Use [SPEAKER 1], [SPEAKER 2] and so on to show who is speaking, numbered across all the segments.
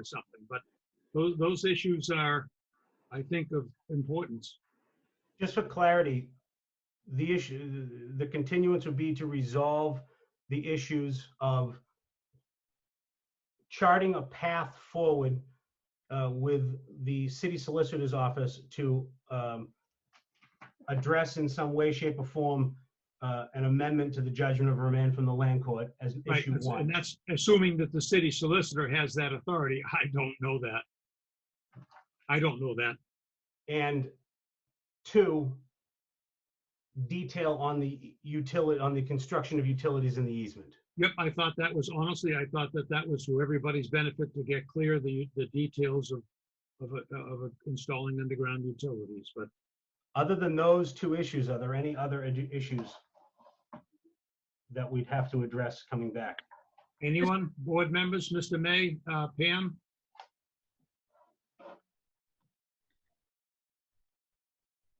[SPEAKER 1] or something, but those, those issues are, I think, of importance.
[SPEAKER 2] Just for clarity, the issue, the continuance would be to resolve the issues of charting a path forward uh, with the city solicitor's office to um, address in some way, shape, or form uh, an amendment to the judgment of remand from the land court as
[SPEAKER 1] Right,
[SPEAKER 2] issue
[SPEAKER 1] that's-
[SPEAKER 2] one.
[SPEAKER 1] and that's assuming that the city solicitor has that authority. I don't know that. I don't know that.
[SPEAKER 2] And two, detail on the utility, on the construction of utilities in the easement.
[SPEAKER 1] Yep, I thought that was, honestly, I thought that that was for everybody's benefit to get clear the, the details of, of, a- of a- installing underground utilities, but
[SPEAKER 2] Other than those two issues, are there any other edu- issues that we'd have to address coming back?
[SPEAKER 1] anyone, board members, Mr. May, uh, Pam?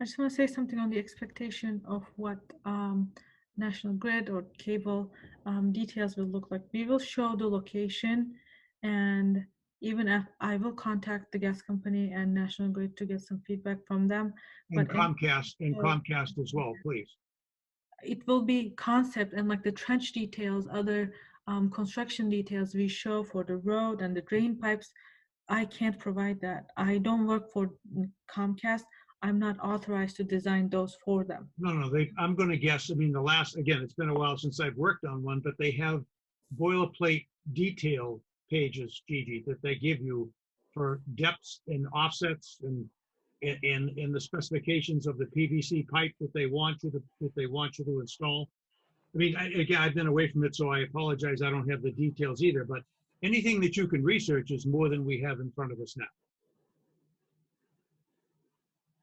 [SPEAKER 3] I just want to say something on the expectation of what um, National Grid or cable um, details will look like. We will show the location, and even if I will contact the gas company and National Grid to get some feedback from them.
[SPEAKER 1] And
[SPEAKER 3] But I-
[SPEAKER 1] Comcast, and Comcast as well, please.
[SPEAKER 3] It will be concept and like the trench details, other um, construction details we show for the road and the drain pipes. I can't provide that. I don't work for Comcast. I'm not authorized to design those for them.
[SPEAKER 1] No, no, they, I'm gonna guess, I mean, the last, again, it's been a while since I've worked on one, but they have boilerplate detail pages, Gigi, that they give you for depths and offsets and, and, and the specifications of the PVC pipe that they want you to, that they want you to install. I mean, I, again, I've been away from it, so I apologize, I don't have the details either, but anything that you can research is more than we have in front of us now.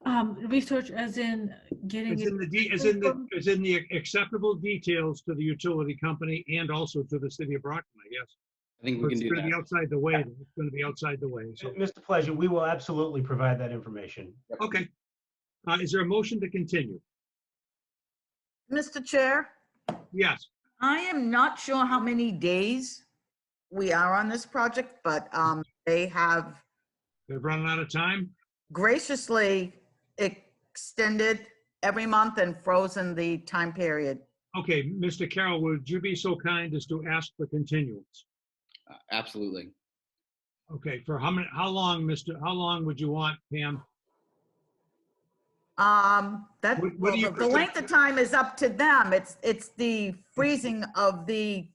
[SPEAKER 3] Um, research as in getting
[SPEAKER 1] It's
[SPEAKER 3] it,
[SPEAKER 1] in the, de- it's in the, it's in the acceptable details to the utility company and also to the city of Brockton, I guess.
[SPEAKER 4] I think we can
[SPEAKER 1] It's
[SPEAKER 4] do
[SPEAKER 1] going to be
[SPEAKER 4] that.
[SPEAKER 1] outside the way, it's going to be outside the way, so,
[SPEAKER 2] Mr. Pleasure, we will absolutely provide that information.
[SPEAKER 1] okay. Uh, is there a motion to continue?
[SPEAKER 5] Mr. Chair,
[SPEAKER 1] Yes,
[SPEAKER 5] I am not sure how many days we are on this project, but um, they have
[SPEAKER 1] they've run out of time.
[SPEAKER 5] graciously extended every month and frozen the time period.
[SPEAKER 1] Okay, Mr. Carroll, would you be so kind as to ask for continuance?
[SPEAKER 4] Uh, Absolutely.
[SPEAKER 1] Okay, for how many, how long, Mr., how long would you want, Pam?
[SPEAKER 5] Um, that,
[SPEAKER 1] What- what
[SPEAKER 5] well,
[SPEAKER 1] do you
[SPEAKER 5] the the length of time is up to them. It's, it's the freezing of the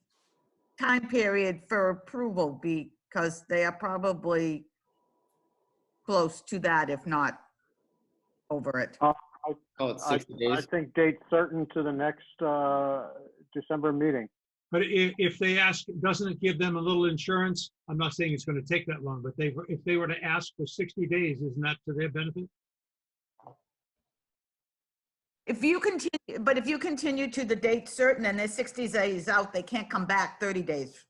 [SPEAKER 5] time period for approval because they are probably close to that, if not over it.
[SPEAKER 4] Call it
[SPEAKER 6] I-
[SPEAKER 4] 60
[SPEAKER 6] I
[SPEAKER 4] days.
[SPEAKER 6] think date certain to the next uh, December meeting.
[SPEAKER 1] But i- if they ask, doesn't it give them a little insurance? I'm not saying it's going to take that long, but they, were- if they were to ask for 60 days, isn't that to their benefit?
[SPEAKER 5] If you continue, but if you continue to the date certain and they're 60 days out, they can't come back 30 days.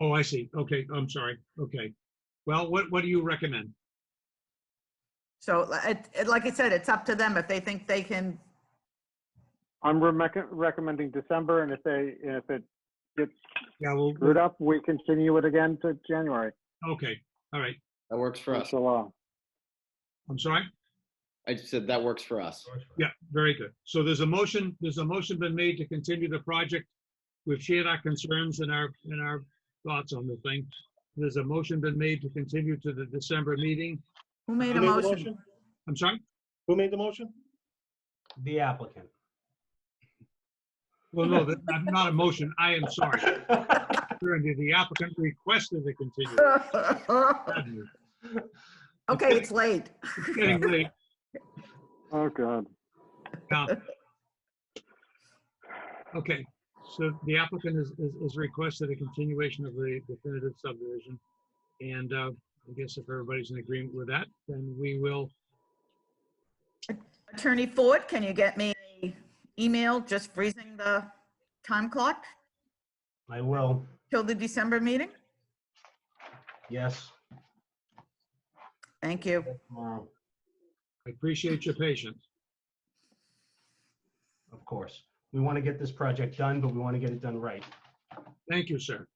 [SPEAKER 1] Oh, I see. Okay, I'm sorry. Okay. Well, what, what do you recommend?
[SPEAKER 5] So li- it, it- like I said, it's up to them if they think they can,
[SPEAKER 6] I'm remec- recommending December, and if they, and if it gets
[SPEAKER 1] Yeah, well,
[SPEAKER 6] screwed up, we continue it again to January.
[SPEAKER 1] okay, all right.
[SPEAKER 4] That works for us.
[SPEAKER 6] So, uh,
[SPEAKER 1] I'm sorry?
[SPEAKER 4] I just said that works for us.
[SPEAKER 1] Yeah, very good. So there's a motion, there's a motion been made to continue the project. We've shared our concerns and our, and our thoughts on the thing. There's a motion been made to continue to the December meeting.
[SPEAKER 5] who made
[SPEAKER 7] Who
[SPEAKER 5] a
[SPEAKER 7] made the
[SPEAKER 5] motion?
[SPEAKER 7] motion?
[SPEAKER 1] I'm sorry?
[SPEAKER 7] Who made the motion?
[SPEAKER 2] The applicant.
[SPEAKER 1] Well, no, that- I'm not a motion. I am sorry. The applicant requested to continue.
[SPEAKER 5] Okay, it's late.
[SPEAKER 1] It's Getting late.
[SPEAKER 6] oh, God.
[SPEAKER 1] Now- Okay, so the applicant is, is- is requested a continuation of the definitive subdivision. And uh, I guess if everybody's in agreement with that, then we will,
[SPEAKER 5] Attorney Ford, can you get me an email just freezing the time clock
[SPEAKER 2] I will,
[SPEAKER 5] till the December meeting?
[SPEAKER 2] yes,
[SPEAKER 5] Thank you.
[SPEAKER 2] tomorrow,
[SPEAKER 1] I appreciate your patience.
[SPEAKER 2] of course. We want to get this project done, but we want to get it done right.
[SPEAKER 1] Thank you, sir.